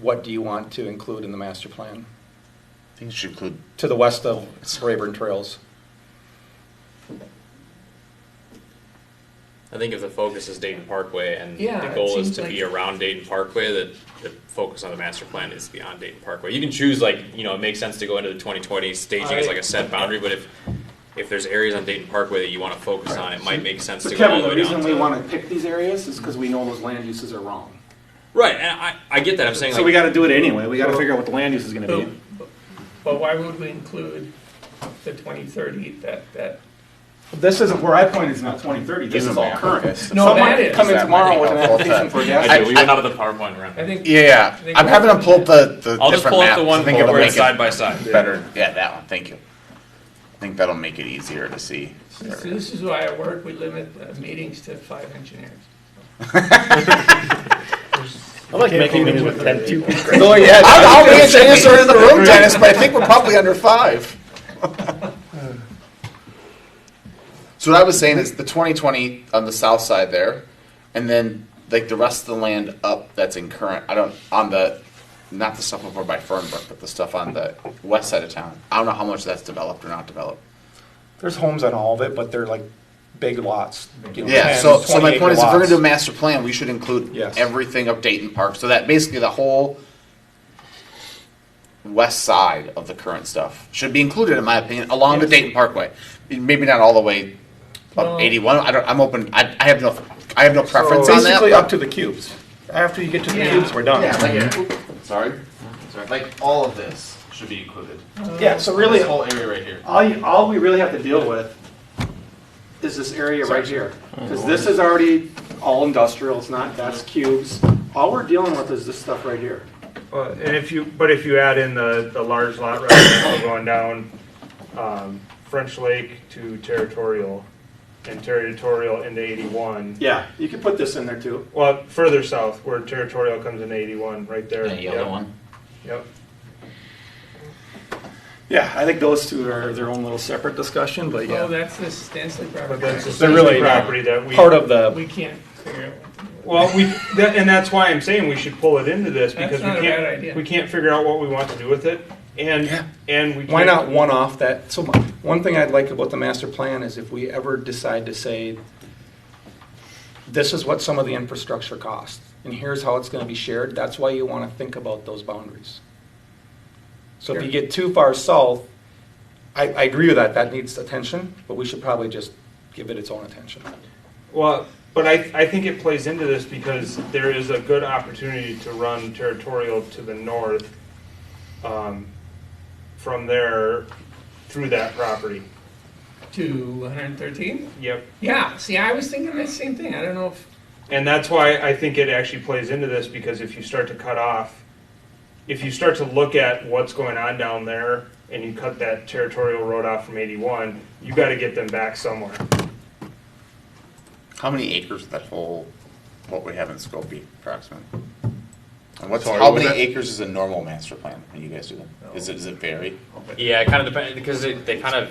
what do you want to include in the master plan? I think it should include, To the west of Rayburn Trails. I think if the focus is Dayton Parkway and Yeah, the it goal is seems to be like- around Dayton Parkway, that the focus on the master plan is beyond Dayton Parkway. You can choose like, you know, it makes sense to go into the twenty twenty staging as like a set boundary, but if if there's areas on Dayton Parkway that you wanna focus on, it might make sense So to go all Kevin, the the way down reason we to- want to pick these areas is because we know those land uses are wrong. Right, and I, I get that, I'm saying So we like, got to do it anyway. We got to figure out what the land use is going to But be. but why would we include the twenty thirty, that, that? This isn't where I pointed. It's not 2030. This Give is them all that. current. No, Someone that could is. come in That tomorrow might with an help that. application for a gas. I do, we station. went out of the PowerPoint around. I think. yeah, yeah. I'm having them pull up the, the I'll just different pull up maps. I the one think it'll where it's make side it by side. better. Yeah, that one, thank you. I think that'll make it easier to see. This this is why at work, we limit uh, meetings to five engineers. I like making meetings with ten people. Oh, yeah. I'll, I'll be a dinosaur in the room, Dennis, but I think we're probably under five. So what I was saying is the 2020 on the south side there, and then like the rest of the land up that's in current. I don't on the not the stuff over by Fernbrook, but the stuff on the west side of town. I don't know how much that's developed or not developed. There's homes on all of it, but they're like big lots. you know, Yeah, 10, so, so 20 my acre point is, if we're lots. gonna do a master plan, we should include Yes. everything of Dayton Park, so that basically the whole west side of the current stuff should be included, in my opinion, along the Dayton Parkway. Maybe not all the way Well- Uh, up eighty-one, I don't, I'm open, I, I have no, I have no preference on that. Basically uh, but- up to the cubes. After you get to the Yeah. cubes, we're done. Yeah, like, Mm-hmm. sorry, sorry, like, all of this should be included, Yeah, so really, whole area right here. all, you- all we really have to deal with is this area right here. Because this is already all industrial, it's not, that's cubes. All we're dealing with is this stuff right here. Well, and if you, but if you add in the, the large lot residential going down, um, French Lake to territorial, and territorial into eighty-one, Yeah, you could put this in there too. well, further south, where territorial comes in eighty-one, right there. That yellow Yep, one, Yep, Yeah, I think those two are their own little separate discussion, but Oh, that's the Stanley but property. that's They're really essentially property that we. Part of the, We can't figure out. Well, we, that, and that's why I'm saying we should pull it into this, That's because we not a bad idea. can't, we can't figure out what we want to do with it, and, and we. why can't- not one off that, so my- one thing I'd like about the master plan is if we ever decide to say, this is what some of the infrastructure costs, and here's how it's gonna be shared, that's why you wanna think about those boundaries. So if you get too far south, I, I agree with that, that needs attention, but we should probably just give it its own attention. Well, but I, I think it plays into this because there is a good opportunity to run territorial to the north um, from there through that property. To one hundred thirteen? Yep. Yeah, see, I was thinking the same thing, I don't know if, And that's why I think it actually plays into this because if you start to cut off, if you start to look at what's going on down there and you cut that territorial road off from 81, you got to get them back somewhere. how many acres is that whole, what we have in Skokie approximately? And what's, Sorry, how what was many that? acres is a normal master plan when you guys do them? Is it, does it vary? Yeah, it kind of depends because they, they kind of,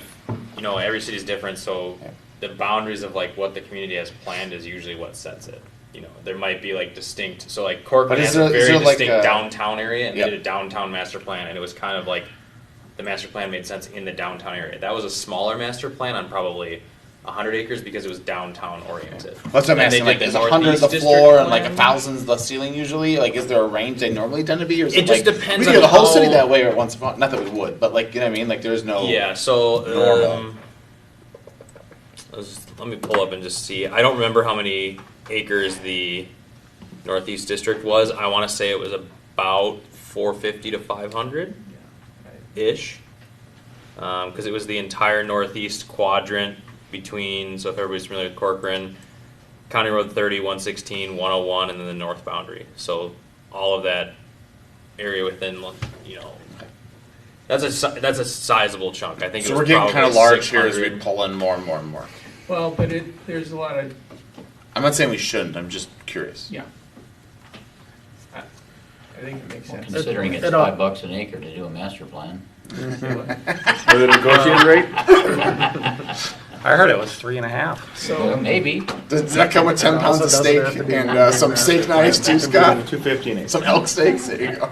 you know, every city's different. So Yeah. the boundaries of like what the community has planned is usually what sets it. You know, there might be like distinct. So like Corcoran But is has there- a is very there, like, uh, distinct a- downtown area, and Yep. they did a downtown master plan, and it was kind of like the master plan made sense in the downtown area. That was a smaller master plan on probably. 100 acres because it was downtown oriented. That's what I'm Then they asking, like, did is a hundred the Northeast floor and district like a plan. thousand's the ceiling usually? Like, is there a range they normally tend to be, or is It it just like? depends We do on the whole how- city that way or once upon, not that we would, but like, you know what I mean, like, there's no. Yeah, so Normal. um, let's- let me pull up and just see. I don't remember how many acres the Northeast District was. I want to say it was about 450 to 500 ish. Because um, it was the entire northeast quadrant between, so if everybody's familiar with Corcoran, County Road 30, 116, 101, and then the north boundary. So all of that area within, you know, that's a si- that's a sizable chunk. I think. it So was we're getting kind of probably large here as we 600. pull in more and more and more. well, but it, there's a lot of, I'm not saying we shouldn't, I'm just curious. yeah. I I think it makes sense. Considering it's five bucks an acre to do a master plan. With a negotiated rate? I heard it was three and a half. Well, So, Maybe. Does that come with ten pounds of steak and uh, some steak knives too, Scott? Two fifty an acre. Some elk steaks, there you go.